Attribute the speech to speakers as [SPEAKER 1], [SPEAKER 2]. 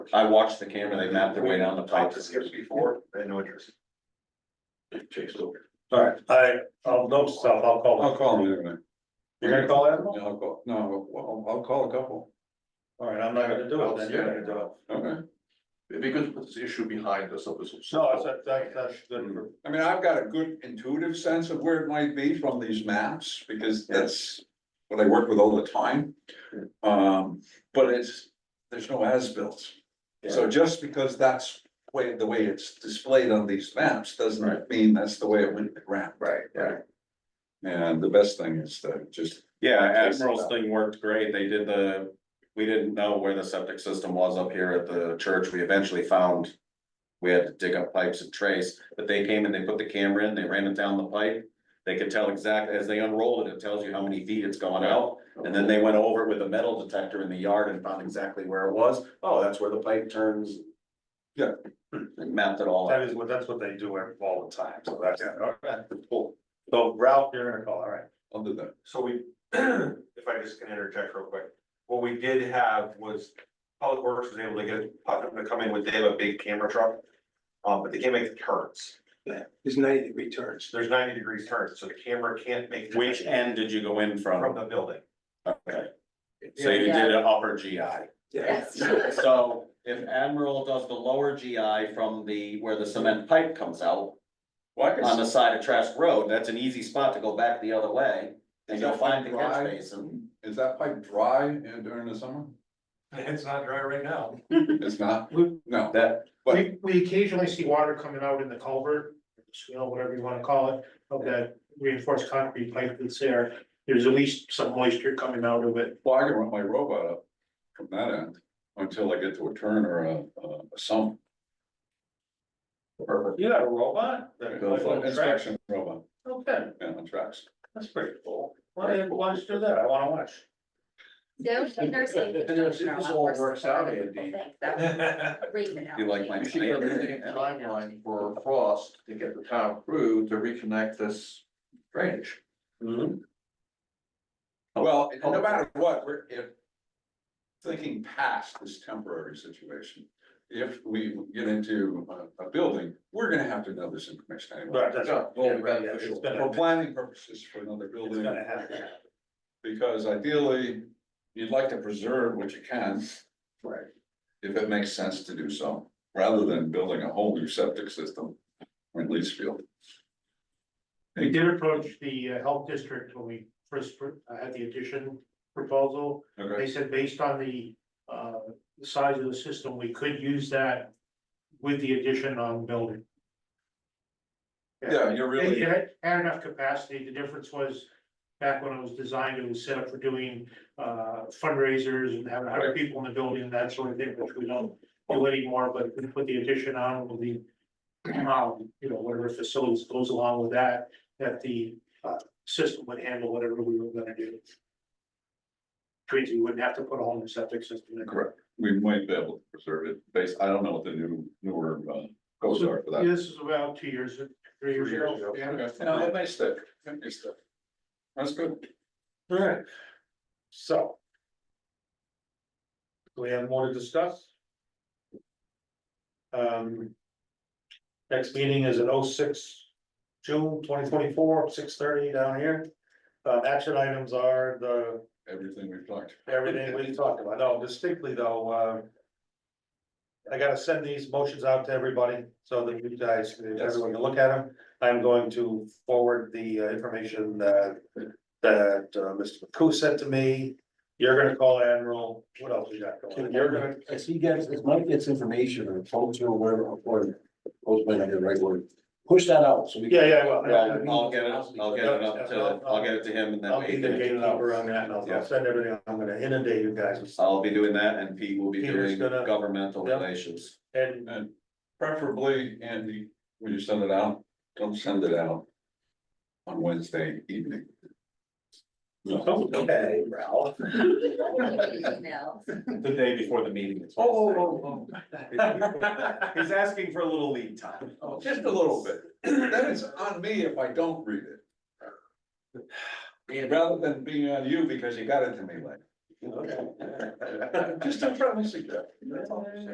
[SPEAKER 1] I watched the camera, they mapped their way down the pipe.
[SPEAKER 2] Talked to Skip before, they had no interest. Chase over.
[SPEAKER 3] Alright, I, I'll know stuff, Oh, I'll call
[SPEAKER 4] I'll
[SPEAKER 3] them.
[SPEAKER 4] call him anyway.
[SPEAKER 3] You're gonna call Admiral?
[SPEAKER 4] Yeah, I'll call, no, well, I'll call a couple.
[SPEAKER 3] Alright, I'm not gonna do it, then you're gonna do it.
[SPEAKER 4] Okay.
[SPEAKER 2] Oh, It'd be good to put this issue behind us, so this.
[SPEAKER 3] No, that's, that's, that's good.
[SPEAKER 4] I mean, I've got a good intuitive sense of where it might be from these maps, because that's what I work with all the time. Um, but it's, there's no as-built. So just because that's way, the way it's displayed on these maps doesn't mean that's the way it went around.
[SPEAKER 2] Right, yeah.
[SPEAKER 4] And the best thing is to just,
[SPEAKER 1] Yeah, Admiral's thing worked great. They did the, we didn't know where the septic system was up here at the church. We eventually found. We had to dig up pipes and trace, but they came and they put the camera in, they ran it down the pipe. They could tell exactly, as they unrolled it, it tells you how many feet it's gone out. And then they went over it with a metal detector in the yard and found exactly where it was. Oh, that's where the pipe turns.
[SPEAKER 4] Yeah.
[SPEAKER 1] And mapped it all. out.
[SPEAKER 3] That is what, that's what they do every- all the time, so that's, alright, cool. So Ralph, you're gonna call, alright.
[SPEAKER 4] I'll do that.
[SPEAKER 5] So we, if I just can interject real quick, what we did have was Public Works was able to get Putnam to come in with, they have a big camera truck. Um, but they can't make the turns.
[SPEAKER 6] There's ninety degree turns.
[SPEAKER 5] There's ninety degrees turns, so the camera can't make. the-
[SPEAKER 1] Which end did you go in
[SPEAKER 5] From
[SPEAKER 1] from?
[SPEAKER 5] the building.
[SPEAKER 1] Okay. So you did an upper GI.
[SPEAKER 7] Yes.
[SPEAKER 1] So if Admiral does the lower GI from the, where the cement pipe comes out
[SPEAKER 4] Well, I
[SPEAKER 1] on
[SPEAKER 4] can,
[SPEAKER 1] the side of Trask Road, that's an easy spot to go back the other way. And you'll find the catch basin.
[SPEAKER 4] is that pipe dry in- during the summer?
[SPEAKER 5] It's not dry right now.
[SPEAKER 4] It's not, no,
[SPEAKER 1] That,
[SPEAKER 6] We, we occasionally see water coming out in the culvert, you know, whatever you wanna call it, of that reinforced concrete pipe that's there. There's at least some moisture coming out of it.
[SPEAKER 4] well, I can run my robot up from that end until I get to a turn or a, a sump. Perfect.
[SPEAKER 3] You got a robot? That-
[SPEAKER 4] Go
[SPEAKER 3] like a
[SPEAKER 4] for
[SPEAKER 3] little track?
[SPEAKER 4] Inspection robot,
[SPEAKER 3] Okay,
[SPEAKER 4] yeah, on tracks.
[SPEAKER 3] that's pretty cool. Why didn't watch do that? I wanna watch.
[SPEAKER 7] Downtown nursing.
[SPEAKER 6] If this all works out, Andy.
[SPEAKER 1] you like my.
[SPEAKER 2] You should get a timeline for Frost to get the town crew to reconnect this drainage.
[SPEAKER 3] Mm-hmm.
[SPEAKER 4] Well, no matter what, we're, if. Thinking past this temporary situation, if we get into a, a building, we're gonna have to know this information anyway.
[SPEAKER 3] Right, that's,
[SPEAKER 2] Yeah,
[SPEAKER 3] yeah,
[SPEAKER 2] well,
[SPEAKER 3] right,
[SPEAKER 2] beneficial.
[SPEAKER 3] it's
[SPEAKER 4] For
[SPEAKER 3] gonna,
[SPEAKER 4] planning purposes for another
[SPEAKER 3] it's
[SPEAKER 4] building,
[SPEAKER 3] gonna happen.
[SPEAKER 4] because ideally, you'd like to preserve what you can.
[SPEAKER 2] Right.
[SPEAKER 4] If it makes sense to do so, rather than building a whole new septic system in Leesfield.
[SPEAKER 6] We did approach the uh, health district when we first uh, had the addition proposal.
[SPEAKER 4] Okay,
[SPEAKER 6] They said based on the, uh, the size of the system, we could use that with the addition on building.
[SPEAKER 4] yeah, you're
[SPEAKER 6] It
[SPEAKER 4] really,
[SPEAKER 6] had, had enough capacity, the difference was, back when it was designed, it was set up for doing, uh, fundraisers and having hundred people in the building, and that sort of thing, which we don't do anymore, but if we put the addition on, will be, um, you know, whatever facilities goes along with that, that the, uh, system would handle whatever we were gonna do. Trees, we wouldn't have to put a whole new septic system in.
[SPEAKER 4] correct, we might be able to preserve it, based, I don't know what the new, newer, uh, codes are for that.
[SPEAKER 6] This is about two years, three years ago.
[SPEAKER 4] No, that may stick, that may stick. That's good.
[SPEAKER 3] Alright, so. Do we have more to discuss? Um. Next meeting is at 06 June twenty twenty-four, six thirty down here. Uh, action items are the,
[SPEAKER 4] Everything we've talked.
[SPEAKER 3] everything we talked about, no, distinctly though, um. I gotta send these motions out to everybody, so that you guys, everyone can look at them. I'm going to forward the uh, information that, that uh, Mr. McCoo sent to me. You're gonna call Admiral, what else you got going? on? You're gonna,
[SPEAKER 8] I see you guys, this might get information or folks or whatever, or, those might not be the right word, push that out, so we.
[SPEAKER 3] yeah, yeah,
[SPEAKER 1] I'll,
[SPEAKER 3] well,
[SPEAKER 1] I'll get it, I'll get it up to, I'll get it to him and
[SPEAKER 3] I'll be the
[SPEAKER 1] then we-
[SPEAKER 3] gatekeeper on that, and I'll, I'll send everything, I'm gonna inundate you guys. with-
[SPEAKER 1] I'll be doing that and Pete will be
[SPEAKER 3] Peter's
[SPEAKER 1] doing
[SPEAKER 3] gonna-
[SPEAKER 1] governmental
[SPEAKER 3] Yep.
[SPEAKER 1] relations.
[SPEAKER 3] And
[SPEAKER 4] And preferably, Andy, when you send it out, don't send it out on Wednesday evening.
[SPEAKER 3] Okay, Ralph.
[SPEAKER 1] The day before the meeting.
[SPEAKER 4] Oh, oh,
[SPEAKER 1] He's asking for a little lead time.
[SPEAKER 4] oh, just a little bit. Then it's on me if I don't read it. Rather than being on you because you got it to me later. Just don't try to suggest.